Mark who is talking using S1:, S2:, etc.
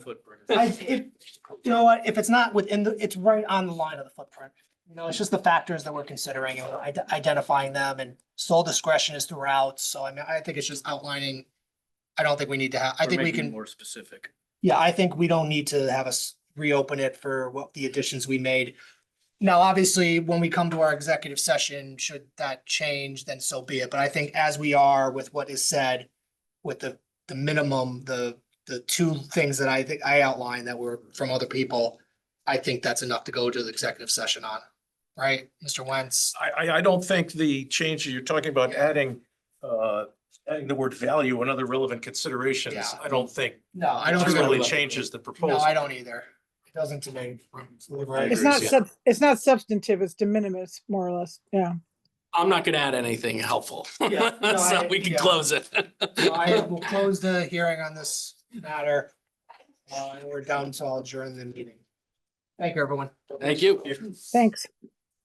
S1: footprint.
S2: I, if, you know what, if it's not within the, it's right on the line of the footprint. You know, it's just the factors that we're considering and we're ide- identifying them and sole discretion is throughout. So I mean, I think it's just outlining. I don't think we need to have, I
S1: Or
S2: think we
S1: making it
S2: can,
S1: More specific.
S2: yeah, I think we don't need to have us reopen it for what the additions we made. Now, obviously, when we come to our executive session, should that change, then so be it. But I think as we are with what is said, with the, the minimum, the, the two things that I think I outlined that were from other people, I think that's enough to go to the executive session on, right, Mr. Wentz?
S3: I, I, I don't think the change that you're talking about adding, uh, adding the word value and other relevant considerations,
S2: Yeah.
S3: I don't think
S2: No, I don't. think it'll-
S3: really changes the
S2: No,
S3: proposal.
S2: I don't either. It doesn't to me.
S4: It's
S3: agree,
S4: not
S3: yeah.
S4: sub, it's not substantive, it's de minimis, more or less, yeah.
S5: I'm not gonna add anything helpful.
S2: Yeah, no, I-
S5: So we can
S2: yeah.
S5: close it.
S2: So I will close the hearing on this matter. Uh, and we're done, so I'll adjourn the meeting. Thank you, everyone.
S5: Thank you.
S4: Thanks.